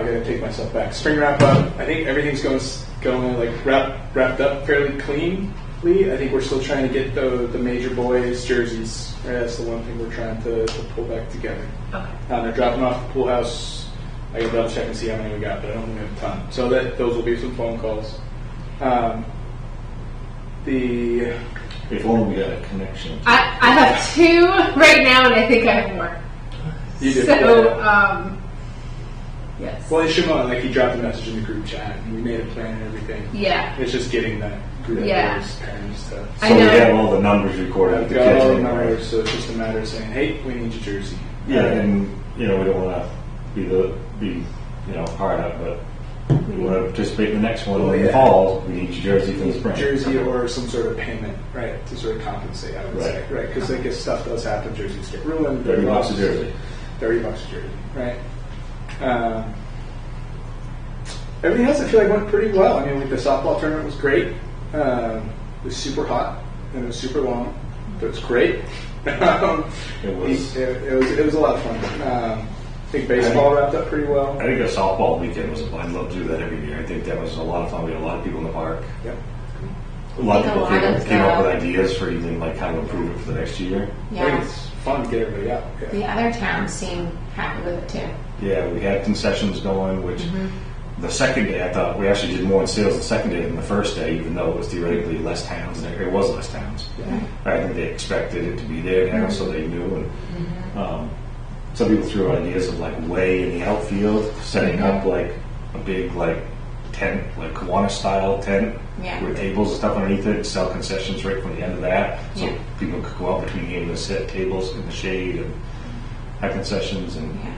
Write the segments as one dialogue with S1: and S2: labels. S1: I gotta take myself back. Spring wrap up. I think everything's going s- going like wrap, wrapped up fairly cleanly. I think we're still trying to get the the major boys jerseys. Right, that's the one thing we're trying to, to pull back together.
S2: Okay.
S1: Um, they're dropping off at the pool house. I gotta double check and see how many we got, but I don't think we have a ton. So that those will be some phone calls. Um, the
S3: If only we had a connection.
S2: I, I have two right now, and I think I have more.
S1: you did.
S2: So, um, yes.
S1: well, Shimon, like he dropped a message in the group chat, and we made a plan and everything.
S2: Yeah.
S1: It's just getting that group
S2: Yeah.
S1: of those parents to.
S2: I
S3: So we
S2: know.
S3: have all the numbers recorded with
S1: I've
S3: the
S1: got
S3: kids.
S1: all the
S3: anyway.
S1: numbers, so it's just a matter of saying, hey, we need your jersey.
S3: Yeah, and, you know, we don't wanna be the, be, you know, hard up, but we wanna participate in the next one.
S1: Oh,
S3: In
S1: yeah.
S3: the fall, we need your jersey for the spring.
S1: Jersey or some sort of payment, right, to sort of compensate, I would
S3: Right.
S1: say, right? Because like if stuff does happen, jerseys get ruined.
S3: Thirty
S1: they're
S3: bucks a
S1: lost,
S3: jersey.
S1: Thirty bucks a jersey, right? Um, everything else I feel like went pretty well. I mean, like the softball tournament was great. Um, it was super hot and it was super long, but it was great. um,
S3: It was-
S1: It, it was. It was a lot of fun. Um, I think baseball wrapped up pretty well.
S3: I think a softball weekend was, I'd love to do that every year. I think that was a lot of fun. We had a lot of people in the park.
S1: Yep.
S3: A lot of
S4: A
S3: people
S4: lot
S3: came,
S4: of
S3: came up with
S4: stuff.
S3: ideas for even like how to improve it for the next year.
S1: I
S4: Yeah.
S1: think it's fun to get everybody out. Yeah.
S4: The other towns seem happy with it too.
S3: Yeah, we had concessions going, which
S4: Mm-hmm.
S3: the second day I thought we actually did more in sales the second day than the first day, even though it was theoretically less towns. and It was less towns. I think they expected it to be there now, so they knew. And
S4: Mm-hmm.
S3: um, some people threw ideas of like way in the outfield, setting
S4: Mm-hmm.
S3: up like a big like tent, like Kiwanis style tent
S4: Yeah.
S3: with tables and stuff underneath it, and sell concessions right from the end of that, so
S4: Yeah.
S3: people could go out between games and sit tables in the shade and have concessions and.
S4: Yeah.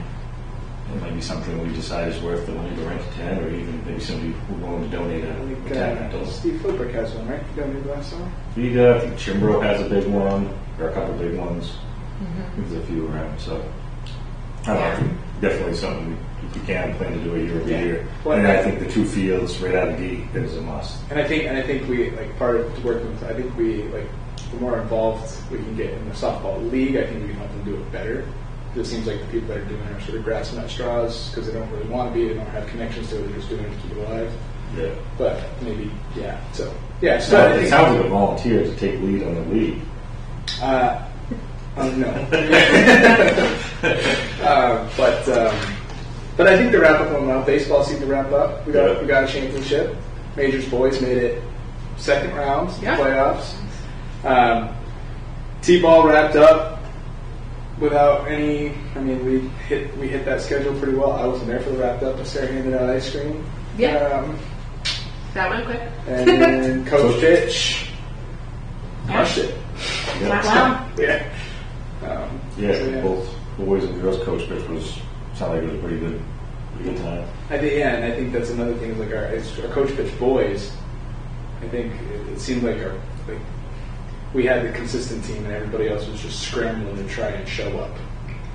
S3: It might be something we decide is worth the money to rent a tent, or even maybe somebody who willing to donate a
S1: I think
S3: a tent
S1: uh,
S3: rental.
S1: Steve Philbrick has one, right? He donated last summer.
S3: Vita, I think Chimbro has a big one, or a couple of big ones.
S1: Mm-hmm.
S3: There's a few around, so. I don't know, definitely something we, if we can, plan to do a year over
S1: Yeah.
S3: year.
S1: Well,
S3: And
S1: I-
S3: I think the two fields right out of the gate is a must.
S1: And I think, and I think we like part of working with. I think we like the more involved we can get in the softball league, I think we can help them do it better. 'Cause It seems like the people that are doing it are sort of grasping at straws because they don't really want to be. They don't have connections to it. They're just doing it to keep it alive.
S3: Yeah.
S1: But maybe, yeah. So yeah. So
S3: So
S1: I
S3: it
S1: think,
S3: sounds like a volunteer to take lead on the league.
S1: uh, um, no. uh, but um, but I think the wrap up went well. Baseball seemed to wrap up. We got
S3: Yeah.
S1: we got a championship. Majors boys made it second round
S2: Yeah.
S1: playoffs. Um, T-ball wrapped up without any. I mean, we hit we hit that schedule pretty well. I wasn't there for the wrapped up, but Sarah handed out ice cream.
S2: Yeah.
S1: Um,
S2: That went quick.
S1: and then Coach Ditch crushed it.
S3: Yeah.
S4: Wow.
S1: Yeah. Um, so,
S3: Yeah, both boys and girls coach, which was, sounded like it was a pretty good, pretty good time.
S1: I think yeah, and I think that's another thing. Is like our, it's our coach pitch boys. I think it, it seemed like our like we had the consistent team, and everybody else was just scrambling to try and show up.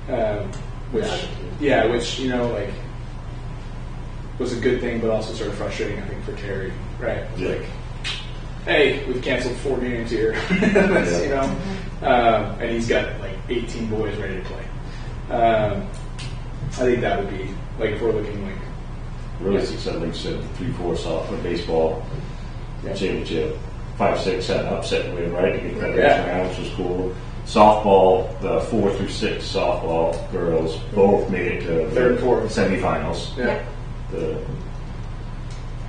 S1: Um, which yeah, which you know like was a good thing, but also sort of frustrating. I think for Terry, right? It's
S3: Yeah.
S1: Like, hey, we've canceled four games here, you know, um, and he's got like 18 boys ready to play. Um, I think that would be like if we're looking like
S3: really successful, like you said, three, four softball, baseball,
S1: Yeah.
S3: championship, five, six, seven, upset win, right? To get that
S1: Yeah.
S3: extra round, which was cool. Softball, the four through six softball girls both made it to
S1: Third and
S3: the
S1: fourth.
S3: semifinals.
S1: Yeah.
S3: The,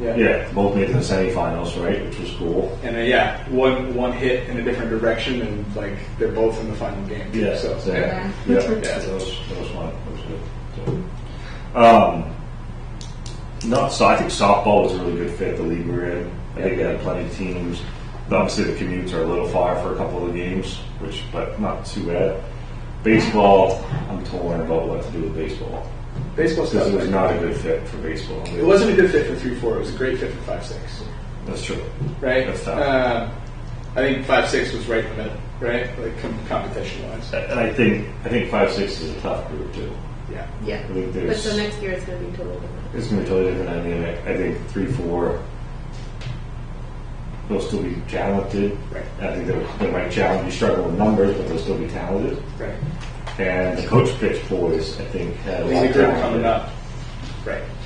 S1: Yeah.
S3: yeah, both made it to the semifinals, right? Which was cool.
S1: And then, yeah, one one hit in a different direction, and like they're both in the final game.
S3: Yeah,
S1: So,
S3: so, yeah,
S4: Yeah.
S3: yeah, that was that was fun. That was good. So, um, no, so I think softball was a really good fit. The league we're in, I think they had plenty of teams. Obviously, the commutes are a little far for a couple of games, which but not too bad. Baseball, I'm torn about what to do with baseball
S1: baseball stuff.
S3: because it was
S1: like,
S3: not a good fit for baseball.
S1: It wasn't a good fit for three four. It was a great fit for five six.
S3: That's true.
S1: Right.
S3: That's tough.
S1: Um, I think five six was right in the middle. Right. Like com- competition wise.
S3: And I think I think five six is a tough group too.
S1: Yeah.
S2: Yeah.
S3: I think
S2: But
S3: there's
S2: so next year it's going to be totally different.
S3: It's going to be totally different. I mean, I, I think three, four, they'll still be talented.
S1: Right.
S3: I think they'll, they might challenge, be struggling with numbers, but they'll still be talented.
S1: Right.
S3: And the coach pitch boys, I think, had a
S1: It was
S3: lot
S1: a
S3: of
S1: group
S3: talent.
S1: coming up. Right.